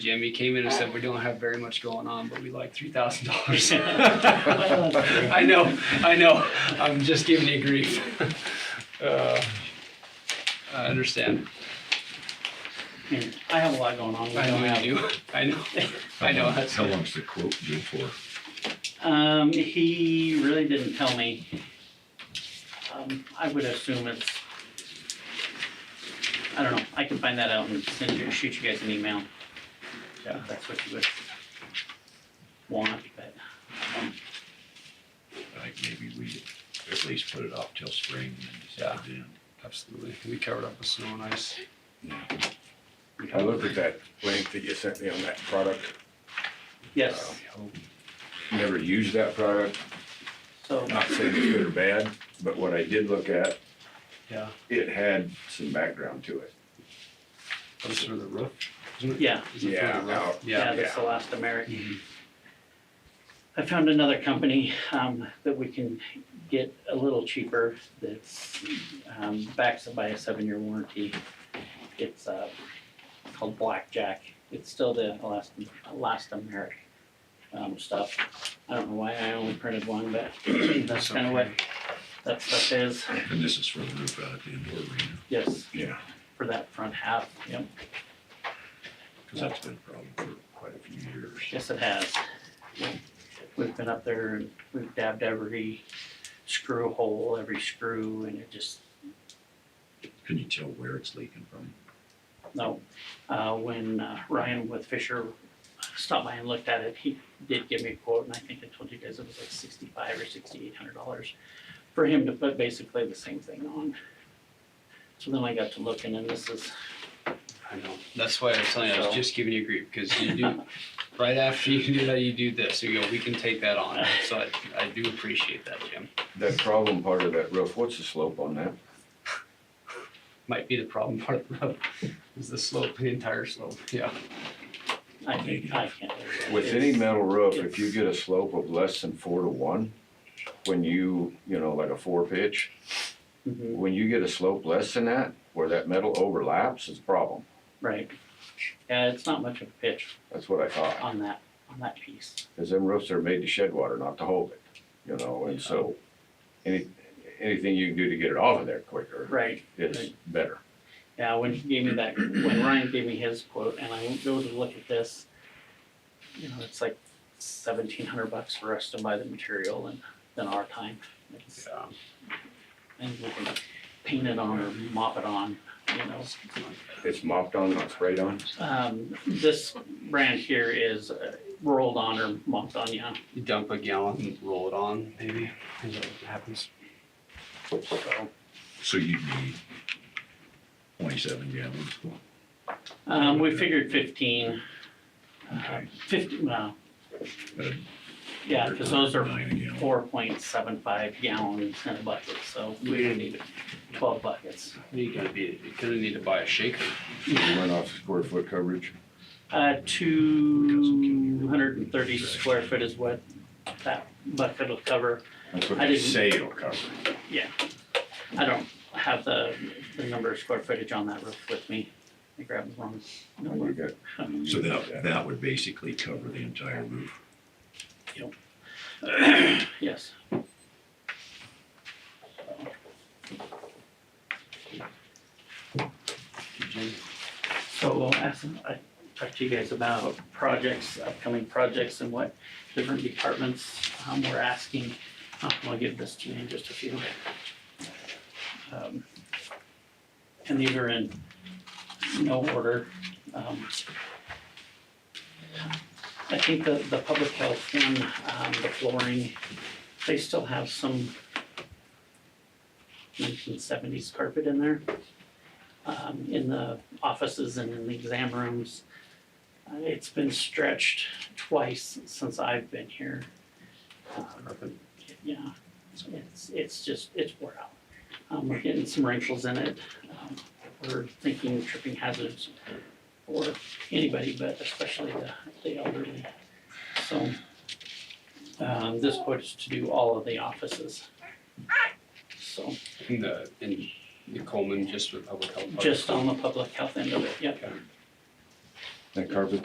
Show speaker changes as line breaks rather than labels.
Jim, he came in and said, we don't have very much going on, but we like three thousand dollars. I know, I know, I'm just giving you grief. Uh, I understand,
I have a lot going on.
I know you do, I know, I know, that's,
Um, How long's the quote due for?
Um, he really didn't tell me. Um, I would assume it's, I don't know, I can find that out and send you, shoot you guys an email. Yeah. If that's what you would want, but, um,
Like maybe we at least put it off till spring and then decide then.
absolutely, we covered up with snow and ice.
I looked at that link that you sent me on that product,
yes,
never used that product,
so,
not saying it's good or bad, but what I did look at,
Yeah,
it had some background to it.
that was for the roof,
yeah,
Is it for the
Yeah,
roof?
now-
yeah,
Yeah,
that's the last American.
Mhm.
I found another company um, that we can get a little cheaper that's um, backed by a seven-year warranty. It's uh, called Blackjack. It's still the elastom- elastomeric um, stuff. I don't know why I only printed one, but that's kind of what that stuff is.
And this is for the roof out at the indoor arena,
Yes,
Yeah.
for that front half. Yep.
because that's been a problem for quite a few years.
Yes, it has. We've been up there and we've dabbed every screw hole, every screw, and it just
Can you tell where it's leaking from?
No, uh, when uh, Ryan with Fisher stopped by and looked at it, he did give me a quote, and I think I told you guys it was like sixty-five or sixty-eight hundred dollars for him to put basically the same thing on. So then I got to looking, and this is,
I know, that's why I was telling you, I was
So-
just giving you grief, because you do, right after you do that, you do this, you go, we can take that on, so I, I do appreciate that, Jim.
That problem part of that roof, what's the slope on that?
Might be the problem part of the roof, is the slope, the entire slope, yeah.
I think, I can't. do that.
With any
It's-
metal roof, if you get a slope of less than four to one, when you, you know, like a four pitch,
Mhm,
when you get a slope less than that, where that metal overlaps, it's a problem.
Right. Yeah, it's not much of a pitch
That's what I thought,
on that, on that piece.
because them roofs are made to shed water, not to hold it, you know, and so any, anything you can do to get it off of there quicker
Right.
is
Right.
better.
Yeah, Uh, when he gave me that, when Ryan gave me his quote and I go to look at this, you know, it's like seventeen hundred bucks for us to buy the material and then our time. It's-
Yeah.
And we can paint it on or mop it on, you know.
It's mopped on, not sprayed on.
Um, this brand here is uh, rolled on or mopped on, yeah,
You dump a gallon and roll it on, maybe, is that what happens?
so,
So you need twenty-seven gallons.
um, we figured fifteen. uh,
Okay.
Fifty, well,
Uh,
yeah, cause those are
Nine a gallon.
four point seven five gallons in a bucket, so we don't need twelve buckets.
You're gonna be, you're gonna need to buy a shaker.
You run off square foot coverage.
Uh, two hundred and thirty square foot is what that bucket will cover.
That's what
I
they
didn't-
say it'll cover.
I don't have the, the number of square footage on that roof with me. I grabbed the wrong
When you
number.
get-
So that, that would basically cover the entire roof.
Yes.
Jim,
So I'll ask, I talked to you guys about projects, upcoming projects and what different departments, um, were asking. Uh, I'll give this to you in just a few. Um, And these are in no order. Um, I think the, the public health one, um, the flooring, they still have some nineteen seventies carpet in there. Um, in the offices and in the exam rooms. Uh, It's been stretched twice since I've been here. Um, Yeah, so it's, it's just, it's wore out. Um, we're getting some wrinkles in it. Um, We're thinking tripping hazards for anybody, but especially the, the elderly. So, um, this quote is to do all of the offices. So,
In the, in the Coleman, just with public health.
just on the public health end of it, yep.
That carpet